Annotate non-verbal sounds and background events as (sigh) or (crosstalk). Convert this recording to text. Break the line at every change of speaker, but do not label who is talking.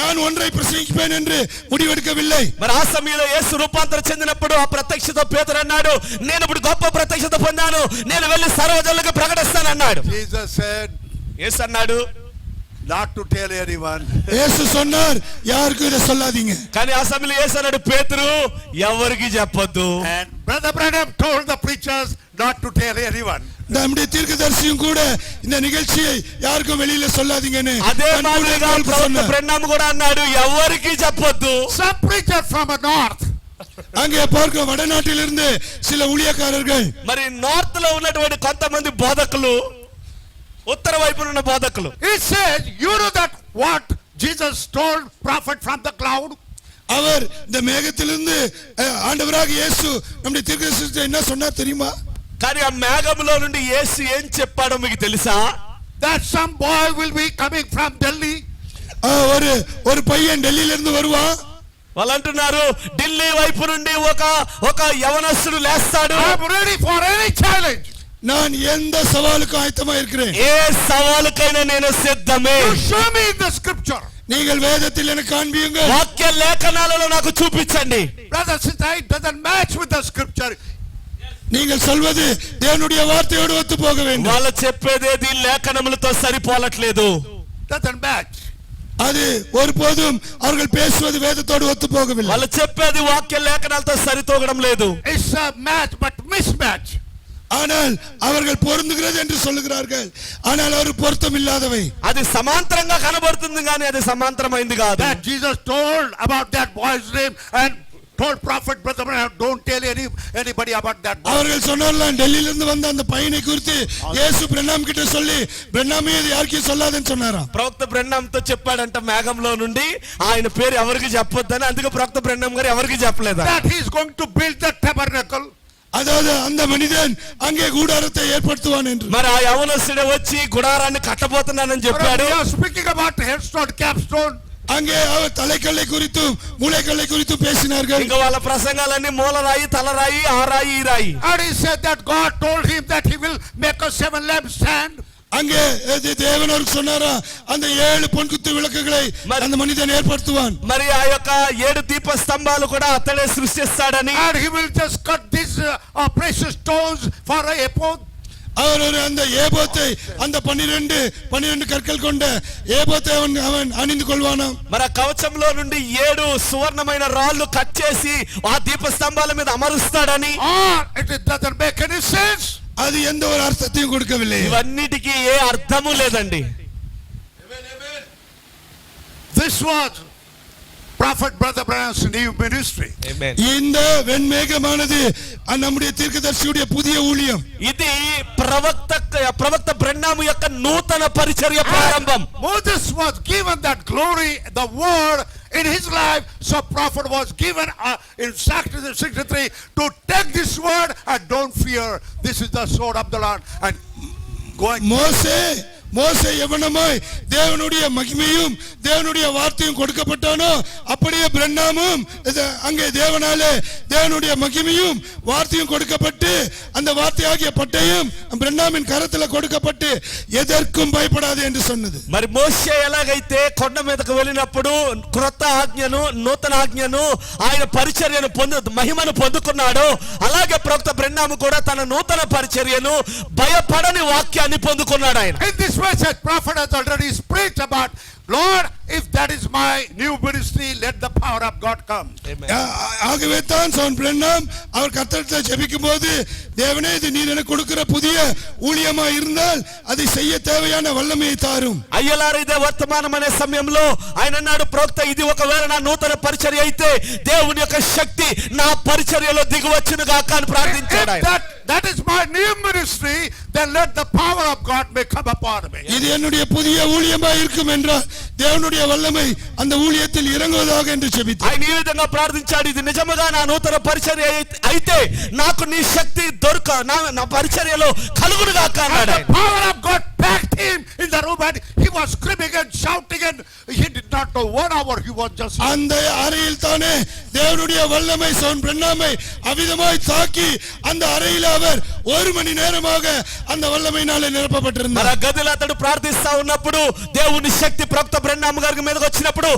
நான் ஒன்றை பிரசங்கிப்பேன் என்று முடிவெடுக்கவில்லை
మరి ఆ సమయంలో యేసు రూపాంతరం చెందినప్పుడు ఆ ప్రత్యక్షత పేతురు అన్నాడు నేను ఇప్పుడు గొప్ప ప్రత్యక్షత పొందాను నేను వెళ్ళి సర్వజనులకు ప్రకటిస్తాను అన్నాడు
Jesus said,
యేసు అన్నాడు
not to tell (laughs) anyone.
இயேசு சொன்னார் யாருக்கும் இதை சொல்லாதீங்க
కానీ ఆ సమయంలో యేసు అన్నాడు పేతురు ఎవరికి చెప్పొద్దు
And Brother Branham told the preachers not to tell anyone.
நம்முடைய தீர்க்கதரிசியும் கூட இந்த நிகழ்ச்சியை யாருக்கும் வெளியில சொல்லாதீங்கன்னு
అదే
தன்
మాదిరిగా
ஊழியக்காரருக்கு
ప్రవక్త
சொன்னார்.
ప్రణామ కూడా అన్నాడు ఎవరికి చెప్పొద్దు
Some preacher from the north,
அங்கே பார்க்க வடநாட்டிலிருந்து சில ஊழியக்காரர்கள்
మరి నార్త్ లో ఉన్నటువంటి కొంతమంది బోధకులు ఉత్తర వైపున ఉన్న బోధకులు
he says, you know that what Jesus told prophet from the cloud?
அவர் இந்த மேகத்திலிருந்து அஹ், ஆண்டவராக இயேசு நம்முடைய தீர்க்கதரிசிட்ட என்ன சொன்னார் தெரியுமா
కానీ ఆ మేఘంలో నుండి యేసు ఏం చెప్పాడో మీకు తెలుసా
That some boy will be coming from Delhi.
அஹ், ஒரு ஒரு பையன் டெல்லியில இருந்து வருவான்
వాళ్ళు అంటున్నారు ఢిల్లీ వైపు నుండి ఒక ఒక యవనస్తుడు లేస్తాడు
I'm ready for any challenge.
நான் எந்த సవాలుக்கும் ஆயத்தமா இருக்கிறேன்
ఏ సవాలుకైనా నేను సిద్ధమే
You show me in the scripture.
நீங்கள் வேதத்தில் எனக்கு காண்பியுங்க
వాక్య లేఖనాలలో నాకు చూపించండి
Brother, sister, it doesn't match with the scripture.
நீங்கள் சொல்வது தேவனுடைய வார்த்தையோடு ஒத்து போக வேண்டும்
వాళ్ళు చెప్పేదేది లేఖనములతో సరిపోలట్లేదు
Doesn't match.
அது ஒருபோதும் அவர்கள் பேசுவது வேதத்தோடு ஒத்து போகவில்லை
వాళ్ళు చెప్పేది వాక్య లేఖనాలతో సరితూగడం లేదు
It's a match, but mismatch.
ஆனால் அவர்கள் பொருந்துகிறது என்று சொல்லுகிறார்கள் ஆனால் அவர் பொருத்தம் இல்லாதவை
అది సమాంతరంగా కనబడుతుంది కానీ అది సమాంతరమైంది కాదు
that Jesus told about that boy's name and told prophet brother Branham, don't tell any, anybody about that boy.
அவர்கள் சொன்னார்லாம் டெல்லியிலிருந்து வந்த அந்த பையனை குறித்து இயேசு பிரண்ணாம் கிட்ட சொல்லி பிரண்ணாமே இது யாருக்கும் சொல்லாதன்னு சொன்னாராம்
ప్రవక్త బ్రెండంతో చెప్పాడంట మేఘంలో నుండి ఆయన పేరు ఎవరికి చెప్పొద్దని అందుకే ప్రవక్త బ్రెండం గారు ఎవరికి చెప్పలేదా
That he's going to build the tabernacle.
அதாவது அந்த மனிதன் அங்கே கூடாரத்தை ஏற்படுத்துவான் என்று
మరి ఆ యవనస్తుడే వచ్చి గుడారాన్ని కట్టబోతున్నానని
But
చెప్పాడు
we are speaking about headstone, capstone.
அங்கே அவர் தலைக்கல்லை குறித்தும் மூளைக்கல்லை குறித்தும் பேசினார்கள்
ఇంకా వాళ్ళ ప్రసంగాలన్నీ మూలరాయి తలరాయి ఆ రాయి ఈ రాయి
And he said that God told him that he will make a seven lampstand.
அங்கே இது தேவன் அவருக்கு சொன்னாரா அந்த ஏழு பொன்குத்து விளக்குகளை
மறு-
அந்த மனிதன் ஏற்படுத்துவான்
మరి ఆ యొక్క ఏడు దీప స్తంభాలు కూడా అతడే సృష్టిస్తాడని
And he will just cut these uh, uh, precious stones for a ephod.
அவர் ஒரு அந்த ஏபோத்தை அந்த பன்னிரண்டு பன்னிரண்டு கற்கள் கொண்ட ஏபோத்தை அவன் அவன் அணிந்து கொள்வானாம்
మరి ఆ కవచంలో నుండి ఏడు సువర్ణమైన రాళ్ళు కట్ చేసి ఆ దీప స్తంభాల మీద అమరుస్తాడని
Or it doesn't make any sense.
அது எந்த ஒரு அர்த்தத்தையும் கொடுக்கவில்லை
ఇవన్నిటికీ ఏ అర్థము లేదండి
This was prophet brother Branham's new ministry.
இந்த வெண்மேகமானது அ- நம்முடைய தீர்க்கதரிசியுடைய புதிய ஊழியம்
ఇది ప్రవక్త ప్రవక్త బ్రహ్నాము యొక్క నూతన పరిచర్య ప్రారంభం
Moses was given that glory, the word in his life. So prophet was given uh, in Exodus 63 to take this word and don't fear. This is the sword of the Lord and going.
மோசே மோசே எவனமாய் தேவனுடைய மகிமையும் தேவனுடைய வார்த்தையும் கொடுக்கப்பட்டானோ அப்படியே பிரண்ணாமும் இது அங்கே தேவனாலே தேவனுடைய மகிமையும் வார்த்தையும் கொடுக்கப்பட்டு அந்த வார்த்தையாகிய பட்டையும் பிரண்ணாமின் கரத்தில் கொடுக்கப்பட்டு எதற்கும் பயப்படாது என்று சொன்னது
మరి మోషే ఎలాగైతే కొండ మీదకు వెళ్ళినప్పుడు క్రొత్త ఆజ్ఞను నూతన ఆజ్ఞను ఆయన పరిచర్యను పొందు మహిమను పొందుకున్నాడు అలాగే ప్రవక్త బ్రహ్నాము కూడా తన నూతన పరిచర్యను భయపడని వాక్యాన్ని పొందుకున్నాడు ఆయన
In this message, prophet has already preached about, Lord, if that is my new ministry, let the power of God come.
ஆ- ஆகவே தான் சவுன் பிரண்ணாம் அவர் கத்தத்தில் ஜெபிக்கும்போது தேவனே இது நீர் எனக்கு கொடுக்கிற புதிய ஊழியமா இருந்தால் அதை செய்ய தேவையான வல்லமையை தாரும்
అయ్యలారు ఇదే వర్తమానం అనే సమయంలో ఆయన అన్నాడు ప్రవక్త ఇది ఒకవేళ నా నూతన పరిచర్య అయితే దేవుని యొక్క శక్తి నా పరిచర్యలో దిగువచ్చును గాక అని
If
ప్రార్థించాడు ఆయన
that, that is my new ministry, then let the power of God may come upon me.
இது என்னுடைய புதிய ஊழியமா இருக்கும் என்றால் தேவனுடைய வல்லமை அந்த ஊழியத்தில் இறங்குவதாக என்று செபித்தார்
ఆయన ఈ విధంగా ప్రార్థించాడు ఇది నిజముగా నా నూతన పరిచర్య అయి- అయితే నాకు నీ శక్తి దొరక నా నా పరిచర్యలో కలుగును గాక అన్నాడు
And the
ఆయన
power of God packed him in the room and he was screaming and shouting and he did not know one hour he was just.
அந்த அறையில் தானே தேவனுடைய வல்லமை சவுன் பிரண்ணாமை அவிதமாய் தாக்கி அந்த அறையில் அவர் ஒரு மணி நேரமாக அந்த వల్లమైనాலே
మరి
நிரப்பப்பட்டிருந்தார்
ఆ గదిలో అతడు ప్రార్థిస్తా ఉన్నప్పుడు దేవుని శక్తి ప్రవక్త బ్రహ్మ గారి మీదకి వచ్చినప్పుడు